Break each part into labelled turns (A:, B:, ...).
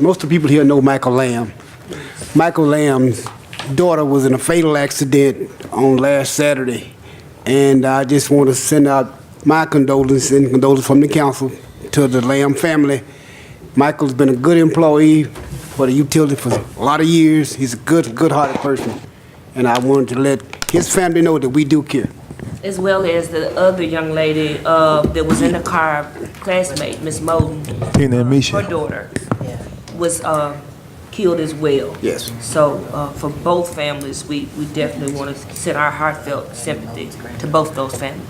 A: Most of the people here know Michael Lamb. Michael Lamb's daughter was in a fatal accident on last Saturday, and I just want to send out my condolences and condolences from the council to the Lamb family. Michael's been a good employee for the utility for a lot of years. He's a good, good-hearted person, and I wanted to let his family know that we do care.
B: as well as the other young lady uh, that was in the car, classmate, Miss Moulton,
C: Tina and
B: her
C: Misha.
B: daughter was uh, killed as well.
A: Yes.
B: So uh, for both families, we, we definitely want to send our heartfelt sympathy to both those families.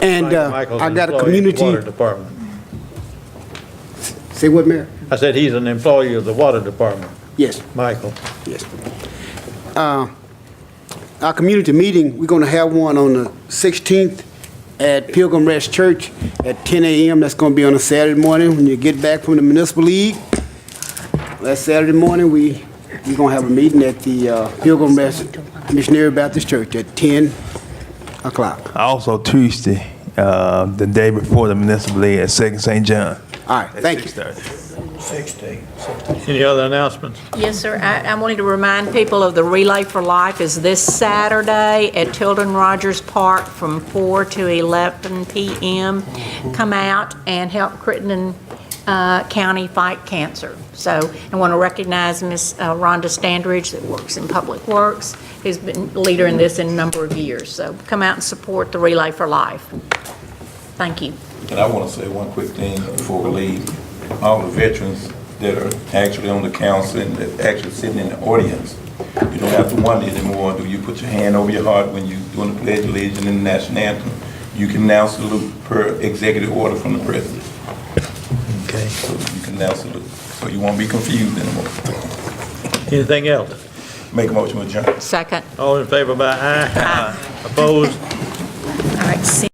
A: And uh,
D: Michael's
A: I
D: an
A: got a
D: employee of the Water
A: community,
D: Department.
A: say what, Mayor?
D: I said he's an employee of the Water Department,
A: Yes.
D: Michael.
A: Yes. Uh, Our community meeting, we're going to have one on the 16th at Pilgrim Rest Church at 10 a.m. That's going to be on a Saturday morning when you get back from the municipal league. That Saturday morning, we, we're going to have a meeting at the uh, Pilgrim Rest Missionary Baptist Church at 10 o'clock.
C: Also Tuesday, uh, the day before the municipal league at Second St. John.
A: All right,
C: at
A: thank you.
C: 6:30.
D: Any other announcements?
E: Yes, sir. I I wanted to remind people of the Relay for Life is this Saturday at Tilden Rogers Park from 4 to 11 p.m. Come out and help Crittenden uh, County fight cancer. So I want to recognize Ms. uh, Rhonda Standridge that works in Public Works, who's been a leader in this in a number of years. So come out and support the Relay for Life. Thank you.
F: And I want to say one quick thing before we leave. All the veterans that are actually on the council and that actually sitting in the audience, you don't have to wonder anymore, do you put your hand over your heart when you doing the pledge of allegiance and the national anthem? You can now salute per executive order from the president.
D: Okay.
F: So you can now salute, so you won't be confused anymore.
D: Anything else?
F: Make a motion to adjourn.
E: Second.
D: All in favor by aye. Opposed?
E: All right. see-